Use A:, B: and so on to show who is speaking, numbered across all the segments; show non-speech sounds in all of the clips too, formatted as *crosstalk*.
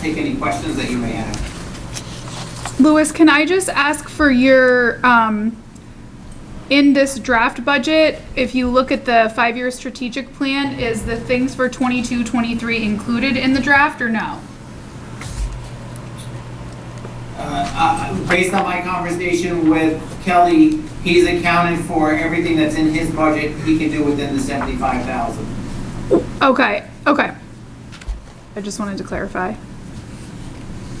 A: take any questions that you may have.
B: Louis, can I just ask for your, um, in this draft budget, if you look at the five-year strategic plan, is the things for 22, 23 included in the draft or no?
A: Uh, uh, Based on my conversation with Kelly, he's accounted for everything that's in his budget he can do within the 75,000.
B: Okay, okay. I just wanted to clarify.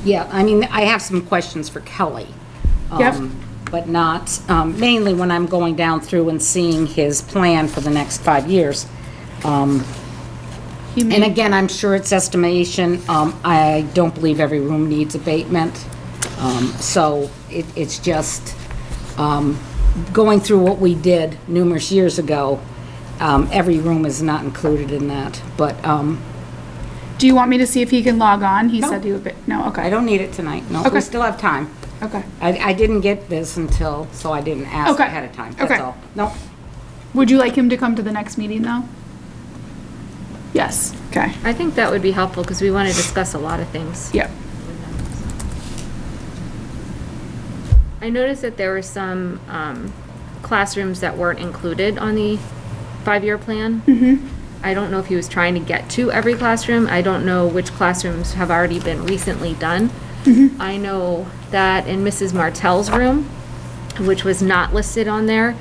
C: Yeah, I mean, I have some questions for Kelly.
B: Yep.
C: um, But not, um, mainly when I'm going down through and seeing his plan for the next five years. Um,
B: He
C: And
B: made,
C: again, I'm sure it's estimation. Um, I don't believe every room needs abatement. Um, So it, it's just um, going through what we did numerous years ago. um, Every room is not included in that, but um,
B: do you want me to see if he can log on? He
C: No.
B: said he would, be- no,
C: I
B: okay,
C: don't need it tonight. No,
B: Okay.
C: we still have time.
B: okay.
C: I, I didn't get this until, so I didn't ask
B: Okay.
C: ahead of time,
B: Okay.
C: that's all. No,
B: Would you like him to come to the next meeting though? Yes, okay,
D: I think that would be helpful because we want to discuss a lot of things.
B: yep.
D: I noticed that there were some um, classrooms that weren't included on the five-year plan. I don't know if he was trying to get to every classroom. I don't know which classrooms have already been recently done. I know that in Mrs. Martell's room, which was not listed on there,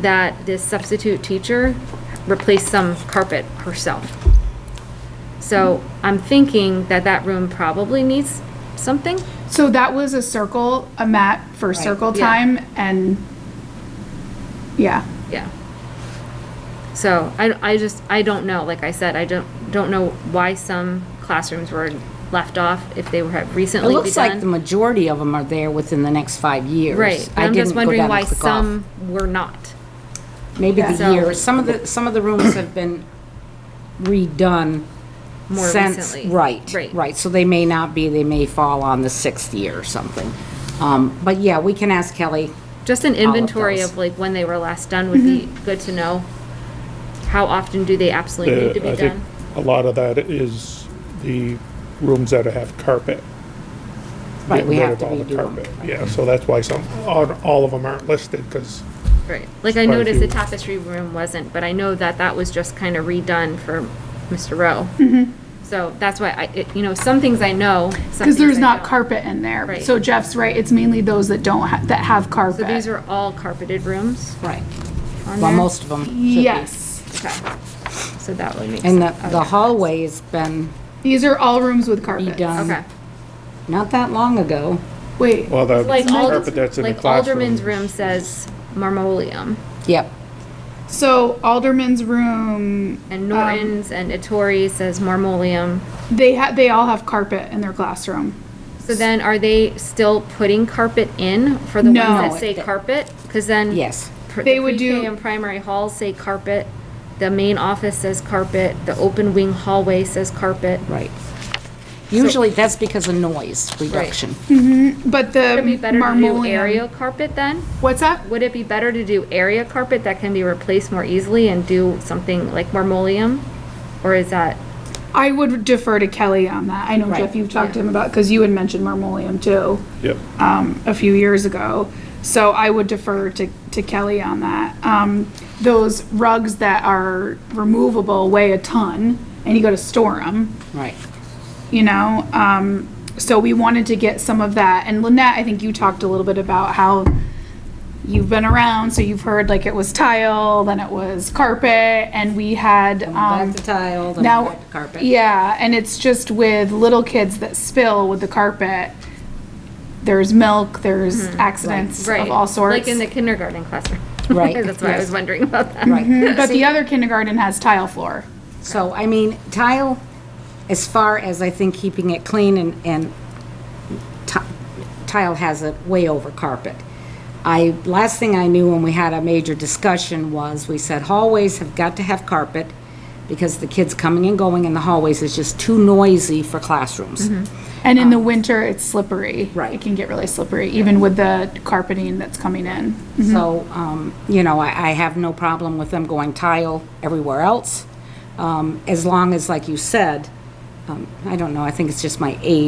D: that this substitute teacher replaced some carpet herself. So I'm thinking that that room probably needs something.
B: So that was a circle, a mat for circle
D: yeah.
B: time and, yeah.
D: Yeah. So I, I just, I don't know, like I said, I don't, don't know why some classrooms were left off if they were had
C: it
D: recently
C: looks like the
D: begun.
C: majority of them are there within the next five years.
D: Right,
C: I
D: I'm
C: didn't
D: just
C: go down
D: wondering
C: and
D: why
C: click off.
D: some were not.
C: Maybe the
D: So-
C: year, some of the, some of the rooms have been redone
D: More
C: since,
D: recently.
C: right,
D: Right.
C: right, so they may not be, they may fall on the sixth year or something. Um, But yeah, we can ask Kelly.
D: Just an inventory
C: those. Mm-hmm.
D: of like when they were last done would be good to know. How often do they absolutely need to
E: Uh, I
D: be
E: think
D: done?
E: A lot of that is the rooms that have carpet.
C: Right, we
E: getting rid
C: have
E: of
C: to
E: all
C: redo
E: the
C: them.
E: carpet. Yeah, so that's why some, all all of them aren't listed, because
D: Right, like I
E: quite a
D: noticed the
E: few.
D: tapestry room wasn't, but I know that that was just kind of redone for Mr. Rowe.
C: Mm-hmm.
D: So that's why I, it- you know, some things I know, some
B: Because there's
D: things I
B: not
D: don't.
B: carpet in there.
D: Right.
B: So Jeff's right, it's mainly those that don't, ha- that have
D: So these
B: carpet.
D: are all carpeted rooms
C: Right,
D: on
C: well,
D: there?
C: most of them should be.
B: Yes,
D: Okay. So that would make sense.
C: And the the hallway has been
B: these are all rooms with carpet.
C: redone
D: Okay.
C: not that long ago.
B: Wait,
E: well, the
D: Like
E: carpet that's
D: Alderman's,
E: in the
D: like
E: classroom.
D: Alderman's room says marmoleum,
C: Yep.
B: so Alderman's room,
C: Um,
D: and Norton's and Ettore says marmoleum.
B: they ha, they all have carpet in their classroom.
D: So then, are they still putting carpet in for the ones
B: No.
D: that say carpet? Because then.
C: Yes.
D: pr- the
B: They would do-
D: pre-K and primary halls say carpet, the main office says carpet, the open wing hallway says carpet.
C: Right. Usually, that's because of noise reduction.
B: But
D: Would it be
B: the
D: better to do area
B: marmoleum,
D: carpet then?
B: what's that?
D: Would it be better to do area carpet that can be replaced more easily and do something like marmoleum? Or is that,
B: I would defer to Kelly on that. I know
C: Right.
B: Jeff, you've talked to him about, because you had mentioned marmoleum too.
E: Yep.
B: a few years ago. So I would defer to, to Kelly on that. Um, those rugs that are removable weigh a ton and you go to store them,
C: Right.
B: you know? Um, so we wanted to get some of that. And Lynette, I think you talked a little bit about how you've been around, so you've heard like it was tile, then it was carpet, and we had, um,
C: Back to tile, then
B: now,
C: back to carpet.
B: yeah, and it's just with little kids that spill with the carpet. There's milk, there's accidents
D: Hmm, right?
B: of all sorts.
D: Like in the kindergarten classroom.
C: Right.
D: *laughs* That's why I was wondering about that.
C: Right.
B: But the other kindergarten has tile floor.
C: So, I mean, tile, as far as I think keeping it clean and, and ti- tile has it way over carpet. I, last thing I knew when we had a major discussion was, we said hallways have got to have carpet because the kids coming and going in the hallways is just too noisy for classrooms.
B: Mm-hmm. And
D: Oh.
B: in the winter, it's slippery.
C: Right.
B: It can get really slippery, even with the carpeting that's coming in.
C: So, um, you know, I, I have no problem with them going tile everywhere else, um, as long as, like you said, um, I don't know, I think it's just my age.